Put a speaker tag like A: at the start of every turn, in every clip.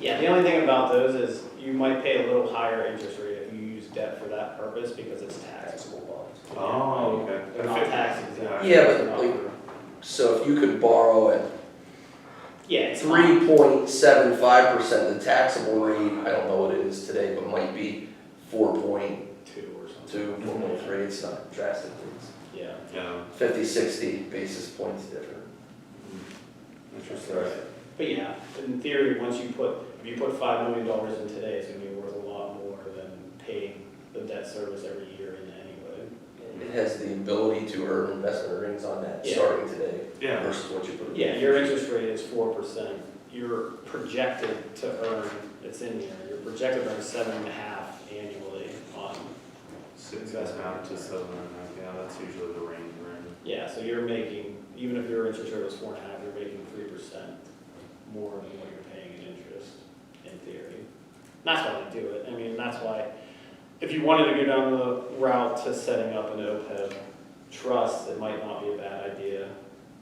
A: Yeah, the only thing about those is you might pay a little higher interest rate if you use debt for that purpose because it's taxable bonds.
B: Oh, okay.
A: They're not tax exempt.
C: Yeah, but like- So if you could borrow at
A: Yeah, it's fine.
C: three point seven five percent, the taxable rate, I don't know what it is today, but might be four point
A: Two or something.
C: two, four point three, it's not drastic. It's
A: Yeah.
B: Yeah,
C: Fifty, sixty basis points different.
B: interesting.
A: But yeah, in theory, once you put, if you put five million dollars in today, it's gonna be worth a lot more than paying the debt service every year in anyway.
C: It has the ability to earn investment earnings on that
A: Yeah.
C: starting today
B: Yeah,
C: versus what you put. in.
A: Yeah, your interest rate is four percent, you're projected to earn, it's in here, you're projected to earn seven and a half annually on,
B: six, that's not just seven and a half, yeah, that's usually the range, right?
A: yeah, so you're making, even if your interest rate was four and a half, you're making three percent more than what you're paying in interest, in theory. And That's why they do it, I mean, that's why, if you wanted to go down the route to setting up an OPEB trust, it might not be a bad idea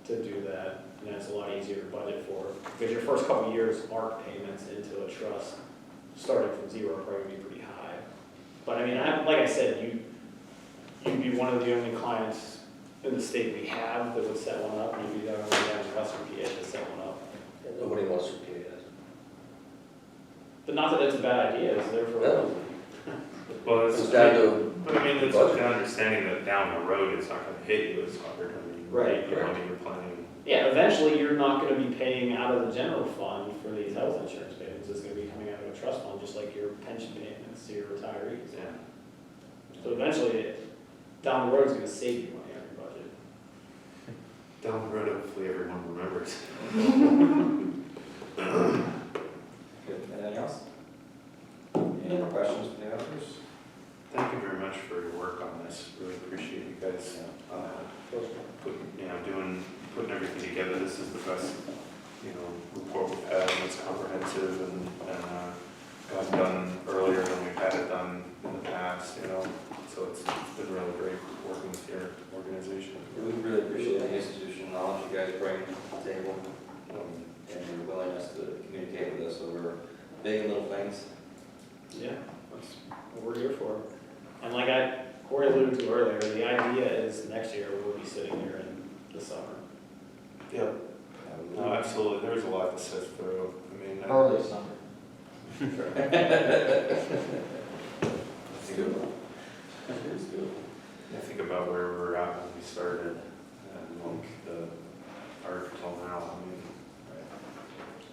A: to do that, and that's a lot easier to budget for, because your first couple of years, ARC payments into a trust, starting from zero, are probably gonna be pretty high. But I mean, I, like I said, you, you'd be one of the only clients in the state we have that would set one up, and you'd be the only one in Western PA to set one up.
C: And Nobody wants to pay that.
A: But not that it's a bad idea, it's there for a
C: No.
A: reason.
B: Well,
C: It's
B: it's,
C: down to,
B: but I mean, it's the understanding that down the road, it's not gonna hit you as hard, I mean.
A: Right.
B: You know, I mean, you're planning,
A: Yeah, eventually you're not gonna be paying out of the general fund for these health insurance payments, it's gonna be coming out of a trust fund, just like your pension payments to your retirees.
B: yeah.
A: So eventually, it- down the road, it's gonna save you money on your budget.
B: Down the road, hopefully everyone remembers.
D: Good, anything else? Any more questions from the others?
B: Thank you very much for your work on this, really appreciate you guys, uh, putting, you know, doing, putting everything together, this is the best, you know, report we've had, and it's comprehensive and, and, uh, got done earlier than we've had it done in the past, you know, so it's, it's been really great working with your organization.
D: We really appreciate the institutional knowledge you guys bring to the table um, and your willingness to communicate with us over big and little things.
A: Yeah, that's what we're here for. And like I, Corey alluded to earlier, the idea is next year, we'll be sitting here in the summer.
B: Yeah. No,
D: Um,
B: absolutely, there was a lot to sift through, I mean, I
E: Early summer.
D: It's doable. It's doable.
B: I think about where we were at when we started, and like the, art till now, I mean,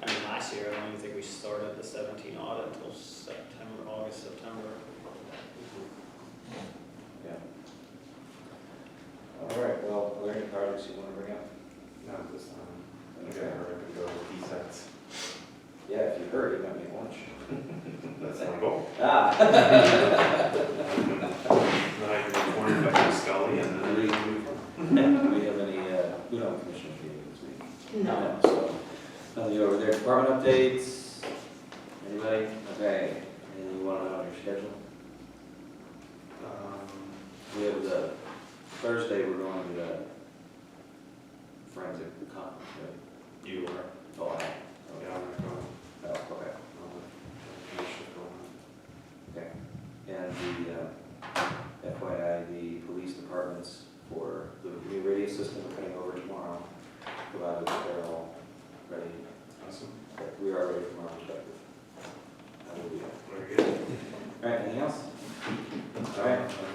A: I mean, last year, I don't even think we started the seventeen audit until September, August, September.
D: Yeah. All right, well, are there any projects you want to bring up?
B: not this time, I think I heard I could go with sets.
D: Yeah, if you heard, you might make lunch.
B: That's my goal.
D: Ah,
B: Then I can be cornered by Chris Scully and then.
D: do we, do we have any, uh, who don't commission for you this week? No. So, nothing over there, department updates, anybody? Okay, anything you want to on your schedule?
B: Um,
D: We have the, Thursday, we're going to the forensic conference, right?
B: You are.
D: Oh, I,
B: Yeah,
D: okay,
B: I'm Um, not going.
D: oh, okay,
B: I'm not
D: okay. And the, uh, FYI, the police departments for the new radio system are coming over tomorrow, provided that they're all ready,
B: Awesome.
D: that we are ready from our perspective. That will be it.
B: Very good.
D: All right, anything else? All right,